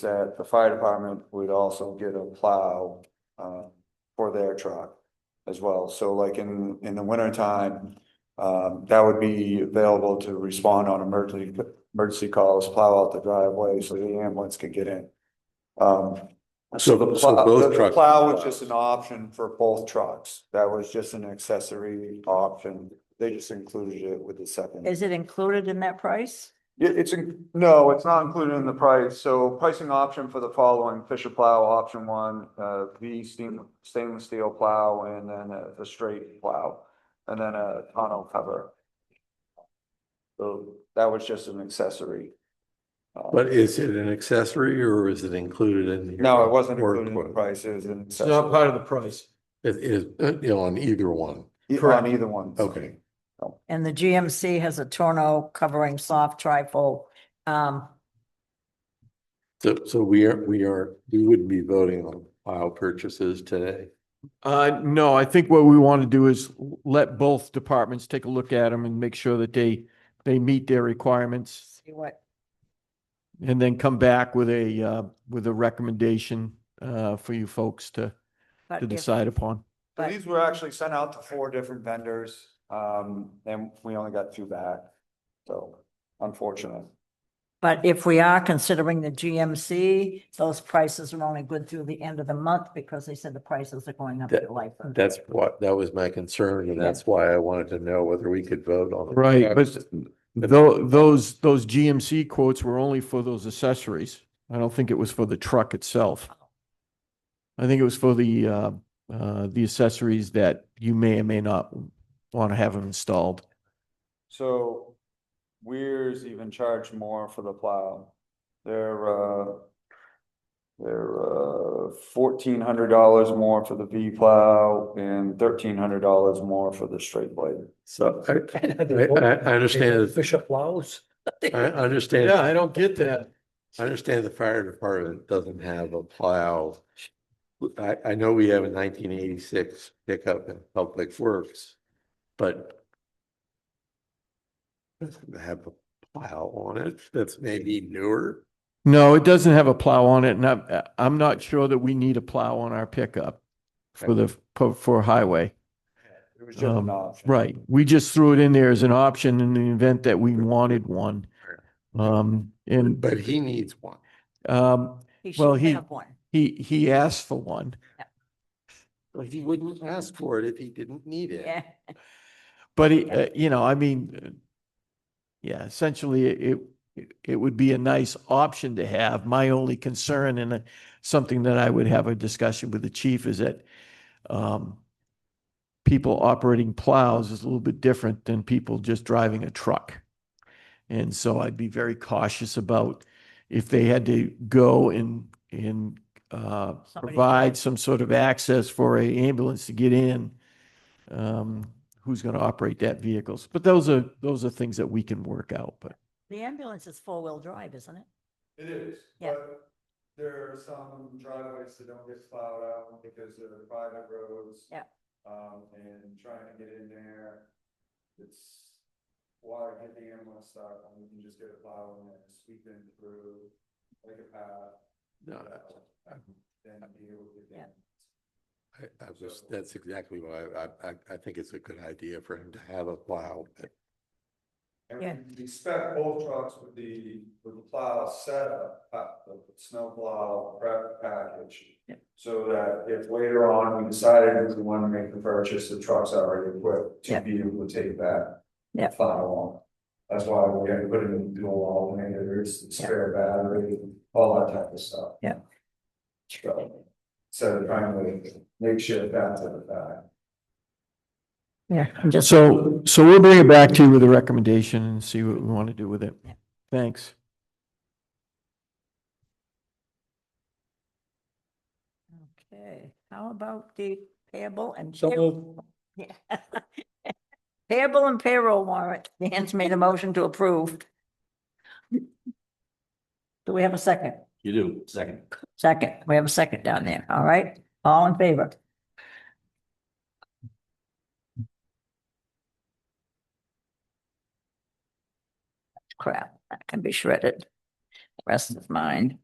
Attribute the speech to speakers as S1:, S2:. S1: that the fire department would also get a plow uh for their truck as well. So like in in the winter time, um that would be available to respond on emergency emergency calls, plow out the driveway so the ambulance could get in. Um, so the
S2: So, so
S1: plow,
S2: both
S1: the
S2: trucks.
S1: plow was just an option for both trucks. That was just an accessory option. They just included it with the second.
S3: Is it included in that price?
S1: It, it's, in- no, it's not included in the price. So pricing option for the following Fisher plow, option one, uh, V steam, stainless steel plow, and then a, a straight plow, and then a tonneau cover. So that was just an accessory. Uh,
S2: But is it an accessory or is it included in? your
S1: No, it wasn't
S2: work
S1: included in the
S2: quote?
S1: price. It was an
S4: It's not
S1: accessory
S4: part of the price.
S2: It is, uh, you know, on either one.
S1: E-
S4: correct.
S1: on either one.
S2: Okay.
S3: And the GMC has a tonneau covering soft trifle. Um,
S2: So, so we are, we are, we wouldn't be voting on file purchases today.
S4: Uh, no, I think what we want to do is l- let both departments take a look at them and make sure that they, they meet their requirements.
S3: see what,
S4: And then come back with a, uh, with a recommendation, uh, for you folks to,
S3: but
S4: to
S3: if-
S4: decide upon.
S1: So
S3: but-
S1: These were actually sent out to four different vendors, um, and we only got two back. So unfortunate.
S3: But if we are considering the GMC, those prices are only good through the end of the month because they said the prices are going up
S2: That-
S3: to life. of-
S2: That's what, that was my concern and that's why I wanted to know whether we could vote on. the
S4: Right, but
S2: trucks.
S4: tho- those, those GMC quotes were only for those accessories. I don't think it was for the truck itself. I think it was for the, uh, uh, the accessories that you may or may not want to have them installed.
S1: So Weir's even charged more for the plow. They're, uh, they're, uh, fourteen hundred dollars more for the V plow and thirteen hundred dollars more for the straight blade.
S2: So I, I, I- I understand,
S5: Fisher plows.
S2: I understand.
S4: I don't get that.
S2: I understand the fire department doesn't have a plow. I, I know we have a nineteen eighty-six pickup in Public Works, but doesn't have a plow on it that's maybe newer.
S4: No, it doesn't have a plow on it, and I'm, I'm not sure that we need a plow on our pickup for the, for- for highway.
S1: It was just an
S4: Um,
S1: option.
S4: Right, we just threw it in there as an option in the event that we wanted one. Um, and,
S2: But he needs one.
S4: um,
S3: He
S4: well,
S3: should
S4: he-
S3: have one.
S4: he, he asked for one.
S2: Like he wouldn't ask for it if he didn't need it.
S3: Yeah.
S4: But it, uh, you know, I mean, uh, yeah, essentially it, it- it would be a nice option to have. My only concern and uh, something that I would have a discussion with the chief is that um, people operating plows is a little bit different than people just driving a truck. And so I'd be very cautious about if they had to go and, and uh,
S3: Somebody-
S4: provide some sort of access for a ambulance to get in. Um, who's going to operate that vehicles. But those are, those are things that we can work out, but
S3: The ambulance is four-wheel drive, isn't it?
S1: It is,
S3: Yeah.
S1: but there are some driveways that don't get plowed out because they're private roads.
S3: Yeah.
S1: Um, and trying to get in there, it's water hit the ambulance stop, and we can just get a plow in there and sweep in through like a path.
S2: No, I-
S1: Then deal with it.
S3: Yeah.
S2: I, I was, that's exactly why I, I, I think it's a good idea for him to have a plow.
S3: Yeah.
S1: And we spec both trucks with the, with the plow setup, uh, the snow plow prep package.
S3: Yep.
S1: So that if later on we decided we want to make the purchase, the truck's already equipped to
S3: Yep.
S1: be able to take that.
S3: Yep.
S1: Plow on. That's why we had to put in dual alternators, spare battery, all that type of stuff.
S3: Yep.
S1: So, so trying to make sure that's at the back.
S3: Yeah. I'm just,
S4: so, so we'll bring it back to you with a recommendation and see what we want to do with it.
S3: Yeah.
S4: Thanks.
S3: okay, how about the payable and?
S5: So
S3: pay-
S5: moved.
S3: Yeah. Payable and payroll warrant. Dan's made a motion to approve. Do we have a second?
S5: You do, second.
S3: Second, we have a second down there, all right? All in favor? Crap, that can be shredded. The Rest is mine.